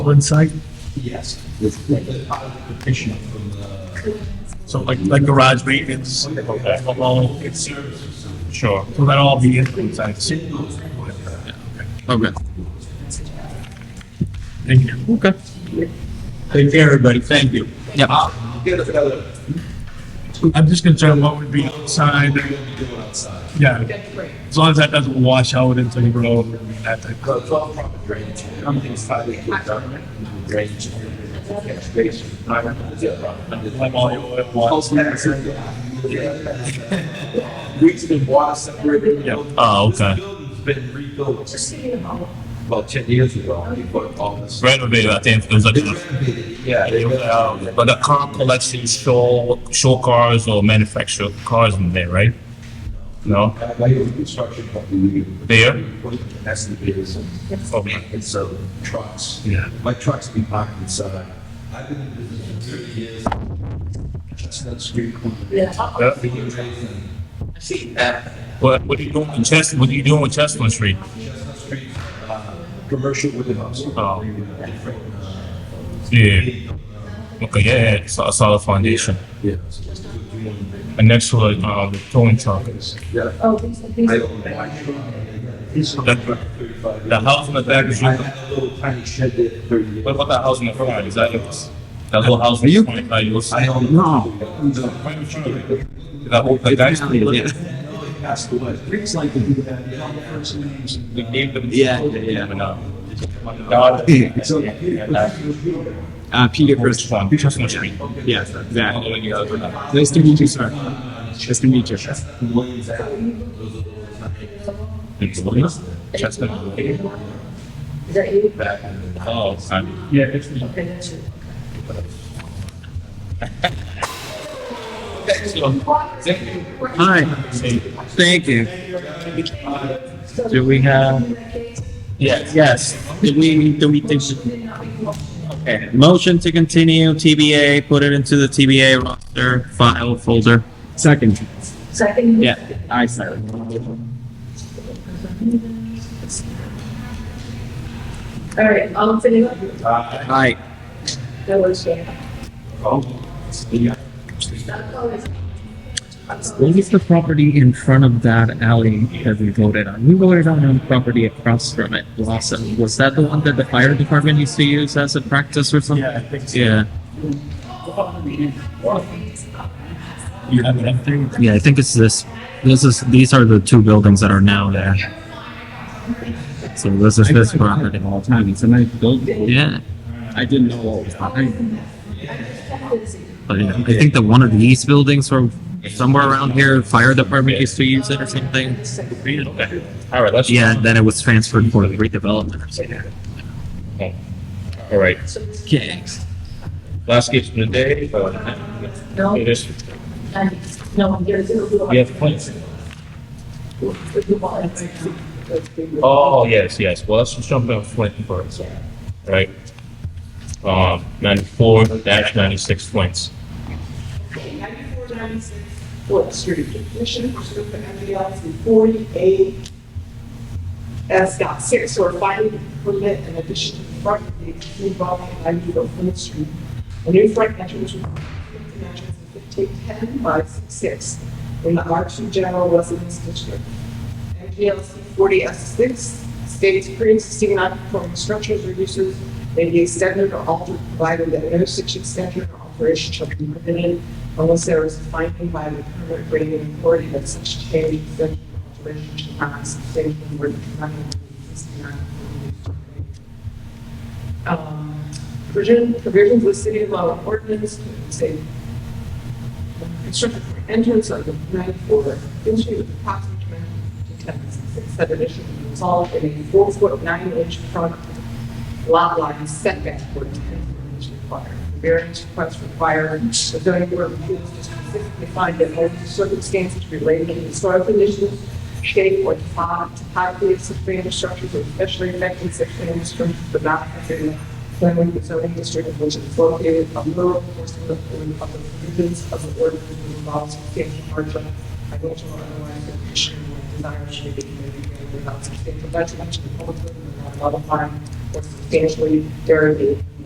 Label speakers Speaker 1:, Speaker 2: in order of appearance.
Speaker 1: on site?
Speaker 2: Yes. The part of the petition from the.
Speaker 1: So like, like garage maintenance, alone, it's, sure, so that'll all be in, I see.
Speaker 3: Okay.
Speaker 1: Thank you.
Speaker 3: Okay.
Speaker 1: Take care, everybody, thank you.
Speaker 3: Yep.
Speaker 2: I'll Get another,
Speaker 1: I'm just concerned what would be outside,
Speaker 2: we're gonna be doing outside.
Speaker 1: yeah, as long as that doesn't wash out into the road and that type.
Speaker 2: Because it's all proper drainage. Everything's finally put down. Drainage. Catch basin. Yeah, proper.
Speaker 1: Like all your oil
Speaker 2: Pulse
Speaker 1: water.
Speaker 2: medicine, yeah. Weeds been water separated.
Speaker 1: Yeah.
Speaker 4: Oh, okay.
Speaker 2: This building's been rebuilt about ten years ago. Before all this.
Speaker 4: renovated, I think, it was like,
Speaker 2: They renovated it, Yeah. they
Speaker 4: uh, but the car collection, show, show cars or manufactured cars in there, right? No?
Speaker 2: I like the construction company.
Speaker 4: There?
Speaker 2: That's the biggest.
Speaker 4: Okay.
Speaker 2: And so trucks.
Speaker 4: Yeah.
Speaker 2: My trucks be parked inside. I've been in business for thirty years. Chestnut Street.
Speaker 4: Yeah.
Speaker 2: Being raised in
Speaker 4: What, what are you doing in Chestnut, what are you doing with Chestnut Street?
Speaker 2: Chestnut Street, uh, commercial warehouse.
Speaker 4: Oh.
Speaker 2: Different, uh,
Speaker 4: Yeah. Okay, yeah, yeah, so- solid foundation.
Speaker 2: Yeah.
Speaker 4: And next to it, uh, the towing truck is.
Speaker 2: Yeah.
Speaker 5: Oh, these, these.
Speaker 2: I own my truck.
Speaker 4: The,
Speaker 2: Thirty-five
Speaker 4: the
Speaker 2: years.
Speaker 4: house in the back is,
Speaker 2: I
Speaker 4: what
Speaker 2: had a little tiny shed there for thirty years.
Speaker 4: about that house in the front, is that yours? That little house
Speaker 3: Are you-
Speaker 4: in front, is that yours?
Speaker 2: I own.
Speaker 3: No.
Speaker 4: That old, the guy's,
Speaker 3: Yeah.
Speaker 2: Passed away. Things like that.
Speaker 4: we gave them.
Speaker 3: Yeah, yeah,
Speaker 4: And, uh, my daughter-
Speaker 2: So.
Speaker 4: And, uh,
Speaker 3: Uh, Peter
Speaker 4: First
Speaker 3: first.
Speaker 4: one, Chestnut Street.
Speaker 3: Yeah,
Speaker 4: All the
Speaker 3: exactly.
Speaker 4: way you guys went up.
Speaker 3: Nice to meet you, sir. Nice to meet you.
Speaker 4: It's Williams? Chestnut.
Speaker 5: Is that you?
Speaker 4: Oh, son. Yeah, it's me.
Speaker 5: Okay, that's you.
Speaker 3: Hi. Thank you. Do we have?
Speaker 4: Yes.
Speaker 3: Yes. Do we, do we think? Okay, motion to continue TBA, put it into the TBA roster, file folder. Second.
Speaker 5: Second?
Speaker 3: Yeah, I second.
Speaker 5: All right, all in favor?
Speaker 3: Hi.
Speaker 5: That was, yeah.
Speaker 3: What was the property in front of that alley that we voted on? We voted on a property across from it, Blossom. Was that the one that the fire department used to use as a practice or something?
Speaker 1: Yeah, I think so.
Speaker 3: Yeah,
Speaker 4: You have everything?
Speaker 6: Yeah, I think it's this. This is these are the two buildings that are now there. So this is this property.
Speaker 3: all the time. It's a nice building.
Speaker 6: Yeah,
Speaker 3: I didn't know what was behind.
Speaker 6: but yeah, I think that one of these buildings from somewhere around here, fire department used to use it or something.
Speaker 4: Okay. All right, let's.
Speaker 6: Yeah, and then it was transferred for redevelopment or something.
Speaker 4: All right,
Speaker 6: Okay.
Speaker 4: last case of the day. uh,
Speaker 5: No,
Speaker 4: It is,
Speaker 5: and no one here.
Speaker 4: we have points.
Speaker 5: Oh,
Speaker 4: Oh, yes, yes. Well, let's just jump in Flint first. Right? Um, ninety-four dash ninety-six Flint's.
Speaker 7: ninety-four, ninety-six, Fourth Street, petition pursuant to MDL three forty-eight. S dot six, or finding permit in addition to the front gate involving ninety-four Fourth Street. A new front entrance with fifteen entrance and fifteen ten by six six in the R two general residence district. MDL three forty S six states pre-existing non-conforming structures or uses may be extended or altered, provided that no such extension or alteration shall be permitted unless there is a finding by the permit granting authority that such change, extension, or alteration shall not sustain or determine the existing non-conforming structure um, provision, provisions of city law ordinance, to say, construction for entrance of the ninety-four, into the approximate to ten, six subdivision, resolved in a four-foot, nine-inch front lot line setback for ten foot is required. Variance requests required, the zoning board of appeals to specifically find that all circumstances related to the soil conditions, shape or top, topography of such structures are especially affecting such land structures, but not considering planning the zoning district in which is located a rural portion of the of the provisions of the ordinance that involves substantial hardship, financial or otherwise, condition or desire should be committed without substantial detriment to the public good and without modifying or substantially derived